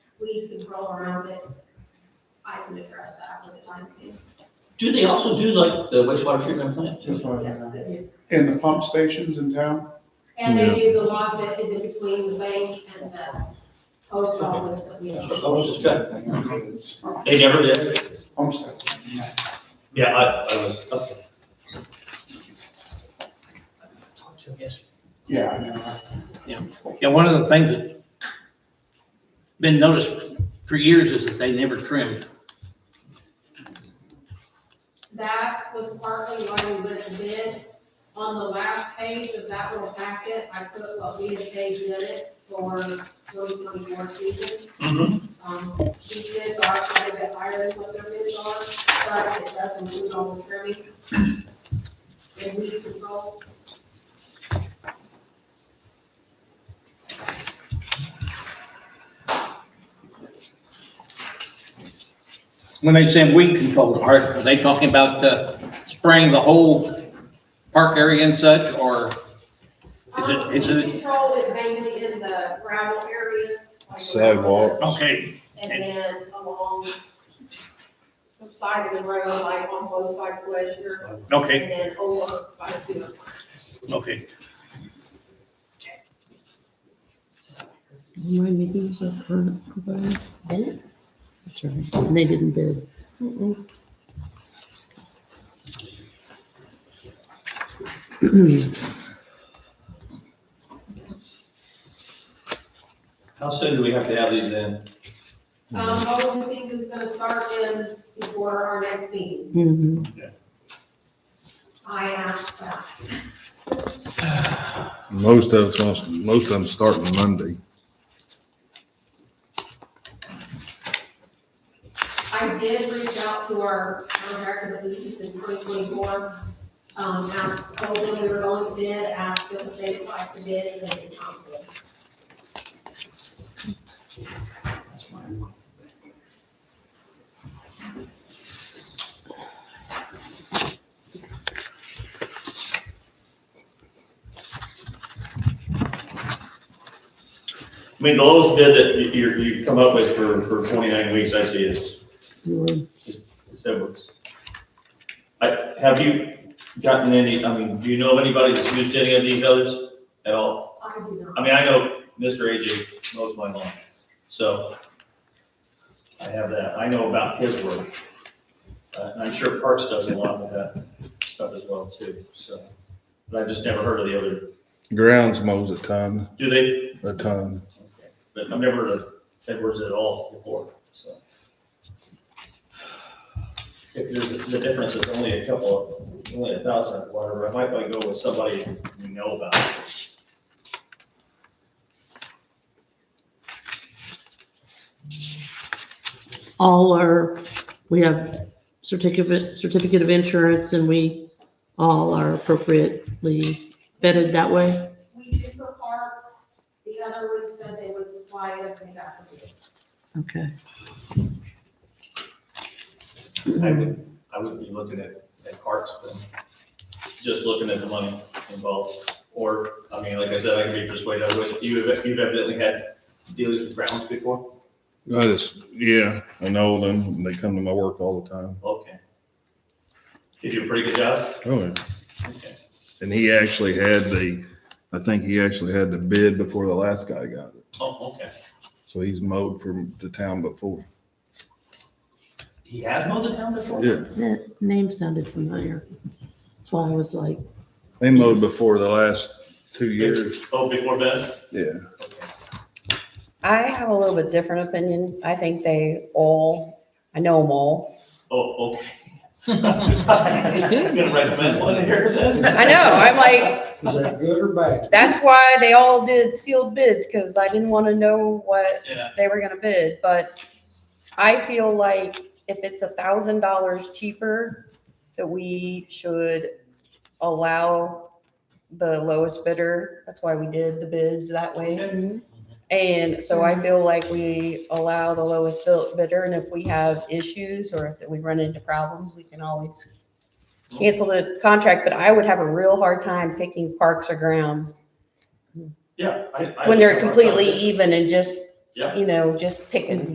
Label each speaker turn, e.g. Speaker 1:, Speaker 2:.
Speaker 1: we can roll around it. I can address that with the time being.
Speaker 2: Do they also do like the wastewater treatment plant too?
Speaker 3: That's what I
Speaker 1: Yes,
Speaker 3: was gonna-
Speaker 1: they do.
Speaker 3: And the pump stations in town?
Speaker 1: And they do the lot that is in between the bank and the post office that we.
Speaker 2: That's what I was just gonna-
Speaker 3: Good.
Speaker 2: They never did?
Speaker 3: Pump station, yeah.
Speaker 2: Yeah, I, I was, okay. Talked to him yesterday.
Speaker 3: Yeah, I know.
Speaker 4: Yeah, one of the things that been noticed for years is that they never trimmed.
Speaker 1: That was partly why we went to bid. On the last page of that little packet, I put what we had paid in it for those twenty-four seasons.
Speaker 2: Mm-hmm.
Speaker 1: Um, these bids are quite a bit higher than what their bids are, but it does include all the trimming. And we control.
Speaker 4: When they say weed control, are, are they talking about uh, spraying the whole park area and such, or? Is it-
Speaker 1: Um,
Speaker 4: is
Speaker 1: weed
Speaker 4: it-
Speaker 1: Control is mainly in the gravel areas. like around us,
Speaker 5: Sidewalks.
Speaker 4: Okay,
Speaker 1: And then along the side of the road, like on both sides of Glacier.
Speaker 4: okay,
Speaker 1: And then over by the sewer plant.
Speaker 4: okay.
Speaker 6: Remind me, who's that current provider? That's right, and they didn't bid.
Speaker 2: How soon do we have to have these in?
Speaker 1: Um, mowing season's gonna start in before our next meeting.
Speaker 6: Mhm.
Speaker 1: I asked that.
Speaker 5: Most of it's, gonna- most of them starting Monday.
Speaker 1: I did reach out to our contractor that we used in twenty twenty-four. Um, asked, told them we were going to bid, asked them if they would like to bid, and they did not bid.
Speaker 7: I mean, the lowest bid that you, you're- you've come up with for, for twenty-nine weeks, I see is,
Speaker 6: You were-
Speaker 7: is Edwards. I, have you gotten any, I mean, do you know of anybody that's used any of these others at all?
Speaker 1: I do not.
Speaker 7: I mean, I know Mr. AJ mows my lawn, so I have that. I know about his work. Uh, and I'm sure Parks does a lot of that stuff as well too, so. But I've just never heard of the other,
Speaker 5: Grounds mows a ton,
Speaker 7: do they?
Speaker 5: a ton.
Speaker 7: Okay. But I've never heard of Edwards at all before, so. If there's, the difference is only a couple, of only a thousand or whatever, I might want to go with somebody we know about.
Speaker 6: All our, we have certificate, certificate of insurance, and we all are appropriately vetted that way.
Speaker 1: We did for parks, the other one said they would supply it if they got the bid.
Speaker 6: Okay.
Speaker 7: I would, I would be looking at, at parks then, just looking at the money involved. Or, I mean, like I said, I can be persuaded, I would, you have, you've evidently had dealings with grounds before?
Speaker 5: I just, yeah, I know them. They come to my work all the time.
Speaker 7: Okay. You do a pretty good job?
Speaker 5: Oh, yeah.
Speaker 7: Okay.
Speaker 5: And he actually had the, I think he actually had the bid before the last guy got it.
Speaker 7: Oh, okay.
Speaker 5: So he's mowed from the town before.
Speaker 7: He has mowed the town before?
Speaker 5: Yeah,
Speaker 6: That name sounded familiar. That's why I was like,
Speaker 5: they mowed before the last two years.
Speaker 7: Oh, before Ben?
Speaker 5: Yeah.
Speaker 7: Okay.
Speaker 8: I have a little bit different opinion. I think they all, I know them all.
Speaker 7: Oh, okay. I'm gonna recommend one here then.
Speaker 8: I know, I'm like,
Speaker 3: Is that good or bad?
Speaker 8: that's why they all did sealed bids, because I didn't want to know what
Speaker 7: Yeah.
Speaker 8: they were gonna bid, but I feel like if it's a thousand dollars cheaper, that we should allow the lowest bidder. That's why we did the bids that way. And so I feel like we allow the lowest bill- bidder, and if we have issues or if we run into problems, we can always cancel the contract, but I would have a real hard time picking parks or grounds
Speaker 7: Yeah. I- I-
Speaker 8: when they're completely even and just,
Speaker 7: Yeah.
Speaker 8: you know, just picking.